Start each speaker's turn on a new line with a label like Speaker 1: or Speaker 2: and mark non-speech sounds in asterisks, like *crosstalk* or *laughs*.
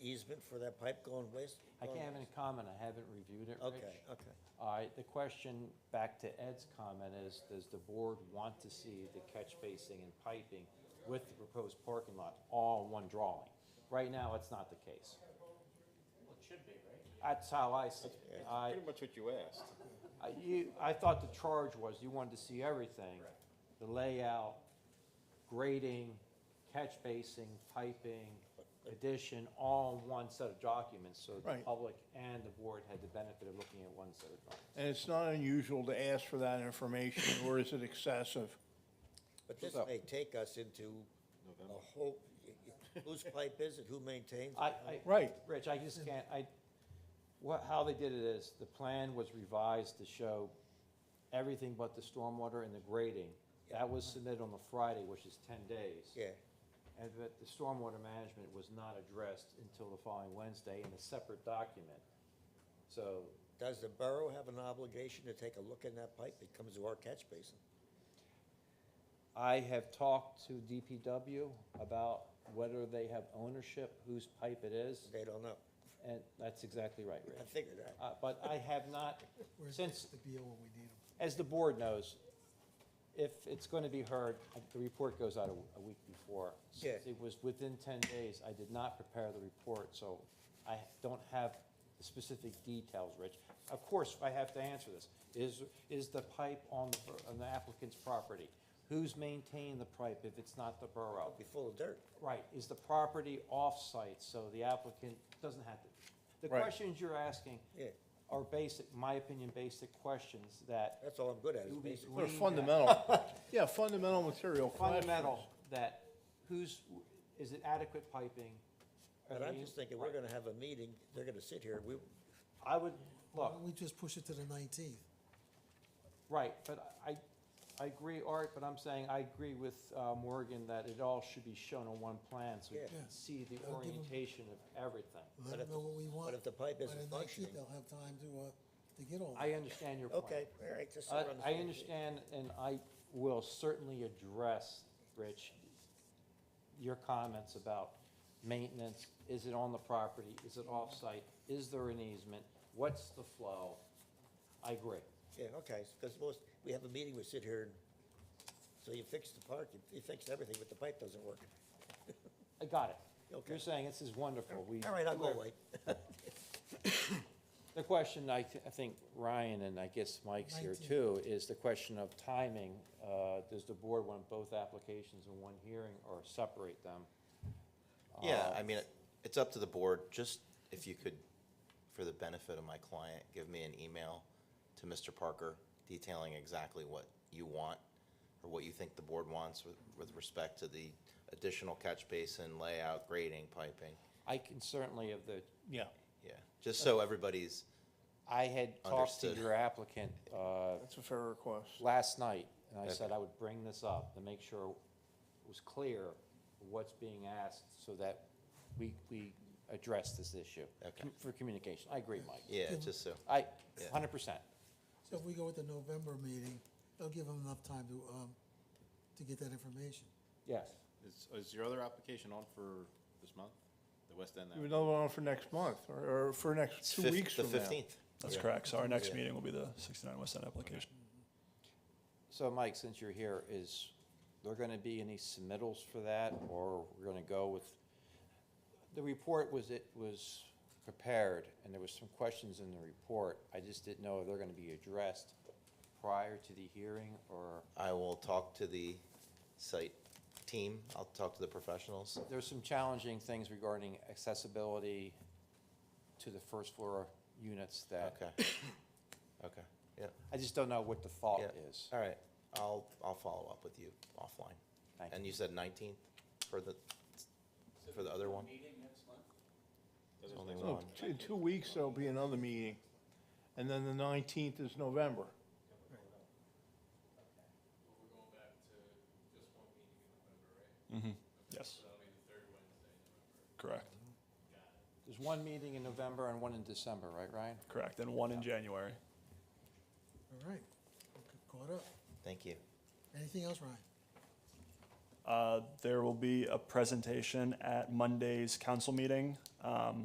Speaker 1: easement for that pipe going west?
Speaker 2: I
Speaker 1: going
Speaker 2: can't have any
Speaker 1: west?
Speaker 2: comment, I haven't reviewed it, Rich.
Speaker 1: Okay, okay.
Speaker 2: All right, the question, back to Ed's comment, is does the board want to see the catch basing and piping with the proposed parking lot all in one drawing? Right now, it's not the case.
Speaker 3: Well, it should be, right?
Speaker 2: That's how I see it. I,
Speaker 4: Pretty much what you asked.
Speaker 2: I, you, I thought the charge was you wanted to see everything. The layout, grading, catch basing, piping, addition, all in one set of documents. So the
Speaker 5: Right.
Speaker 2: public and the board had the benefit of looking at one set of documents.
Speaker 5: And it's not unusual to ask for that information, *laughs* or is it excessive?
Speaker 1: But this
Speaker 2: So-
Speaker 1: may take us into a whole, whose pipe is it, who maintains
Speaker 2: I, I.
Speaker 1: it?
Speaker 5: Right.
Speaker 2: Rich, I just can't, I, what, how they did it is, the plan was revised to show everything but the stormwater and the grading. That was submitted on the Friday, which is ten days.
Speaker 1: Yeah,
Speaker 2: And that the stormwater management was not addressed until the following Wednesday in a separate document. So,
Speaker 1: does the borough have an obligation to take a look in that pipe that comes to our catch basin?
Speaker 2: I have talked to DPW about whether they have ownership, whose pipe it is,
Speaker 1: They don't know.
Speaker 2: and that's exactly right,
Speaker 1: I
Speaker 2: Rich.
Speaker 1: figured that.
Speaker 2: Uh, but I have not,
Speaker 6: Where's
Speaker 2: since,
Speaker 6: the deal when we need them?
Speaker 2: as the board knows, if it's going to be heard, the report goes out a- a week before.
Speaker 1: Yeah.
Speaker 2: Since It was within 10 days. I did not prepare the report, so I don't have the specific details, Rich. Of course, I have to answer this. Is, is the pipe on the bor- on the applicant's property? Who's maintaining the pipe if it's not the borough?
Speaker 1: Be full of dirt.
Speaker 2: Right, is the property off-site, so the applicant doesn't have to. The
Speaker 5: Right.
Speaker 2: questions you're asking
Speaker 1: Yeah.
Speaker 2: are basic, my opinion, basic questions that
Speaker 1: That's all I'm good at, is
Speaker 2: It would be
Speaker 1: basically.
Speaker 5: They're
Speaker 2: Green, yeah.
Speaker 5: fundamental,
Speaker 4: *laughs*
Speaker 5: yeah, fundamental material questions.
Speaker 2: fundamental that who's, is it adequate piping? Are
Speaker 1: But I'm
Speaker 2: they-
Speaker 1: just thinking, we're gonna have a meeting, they're gonna sit here, we,
Speaker 2: I would,
Speaker 6: Why
Speaker 2: look,
Speaker 6: don't we just push it to the nineteenth?
Speaker 2: right, but I, I agree, Art, but I'm saying I agree with uh, Morgan that it all should be shown on one plan so you
Speaker 1: Yeah.
Speaker 2: can
Speaker 6: Yeah.
Speaker 2: see the
Speaker 6: That'll give 'em-
Speaker 2: orientation of everything.
Speaker 1: But
Speaker 6: Let
Speaker 1: if
Speaker 6: them
Speaker 1: the-
Speaker 6: know what we want.
Speaker 1: but if the pipe
Speaker 6: By
Speaker 1: isn't
Speaker 6: the 19th,
Speaker 1: functioning-
Speaker 6: They'll have time to, uh, to get all that.
Speaker 2: I understand your point.
Speaker 1: okay, all right, just. so
Speaker 2: I
Speaker 1: we're on the
Speaker 2: I
Speaker 1: same page.
Speaker 2: understand, and I will certainly address, Rich, your comments about maintenance. Is it on the property? Is it off-site? Is there an easement? What's the flow? I agree.
Speaker 1: Yeah, okay, because most, we have a meeting, we sit here, and, so you fix the park, you- you fix everything, but the pipe doesn't work.
Speaker 2: I got it.
Speaker 1: Okay.
Speaker 2: You're saying this is wonderful. We-
Speaker 1: All right, I'll go away.
Speaker 2: The question, I, th- I think Ryan and I guess Mike's here
Speaker 6: Nineteen.
Speaker 2: too, is the question of timing. Uh, Does the board want both applications in one hearing or separate them?
Speaker 4: Yeah, I mean, it- it's up to the board, just if you could, for the benefit of my client, give me an email to Mr. Parker detailing exactly what you want, or what you think the board wants with, with respect to the additional catch basin layout, grading, piping,
Speaker 2: I can certainly, of the
Speaker 5: Yeah,
Speaker 4: yeah, just so everybody's,
Speaker 2: I had talked to
Speaker 4: Understood.
Speaker 2: your applicant uh,
Speaker 5: that's a fair request.
Speaker 2: last night, and I
Speaker 4: Okay.
Speaker 2: said I would bring this up to make sure it was clear what's being asked so that we, we address this issue.
Speaker 4: Okay.
Speaker 2: Com- For communication. I agree, Mike.
Speaker 4: yeah, just so.
Speaker 2: I,
Speaker 4: Yeah.
Speaker 2: hundred percent.
Speaker 6: So if we go with the November meeting, they'll give them enough time to, um, to get that information.
Speaker 2: Yes.
Speaker 7: Is, is your other application on for this month, the West End?
Speaker 5: You have another one for next month, or, or for
Speaker 4: It's
Speaker 5: next two
Speaker 4: fif-
Speaker 5: weeks from now.
Speaker 4: The fifteenth.
Speaker 8: That's correct. So our next meeting will be the 69 West End application.
Speaker 2: So Mike, since you're here, is there gonna be any submittals for that, or we're gonna go with? The report was, it was prepared, and there was some questions in the report. I just didn't know if they're gonna be addressed prior to the hearing, or
Speaker 4: I will talk to the site team, I'll talk to the professionals,
Speaker 2: there's some challenging things regarding accessibility to the first floor units that,
Speaker 4: okay, *coughs* okay, yeah,
Speaker 2: I just don't know what the thought
Speaker 4: yeah.
Speaker 2: is.
Speaker 4: All right, I'll, I'll follow up with you offline.
Speaker 2: Thank
Speaker 4: And you said nineteenth for the, for the other one?
Speaker 3: Meeting next month?
Speaker 4: There's only
Speaker 5: So
Speaker 4: one.
Speaker 5: t- In two weeks, there'll be another meeting, and then the nineteenth is November.
Speaker 9: Well, we're going back to just one meeting in November, right?
Speaker 8: Yes,
Speaker 9: So that'll be the third Wednesday in November.
Speaker 8: correct,
Speaker 2: There's one meeting in November and one in December, right, Ryan?
Speaker 8: correct. And one in January.
Speaker 6: All right, We're caught up.
Speaker 4: Thank you.
Speaker 6: Anything else, Ryan?
Speaker 8: Uh, There will be a presentation at Monday's council meeting. Um,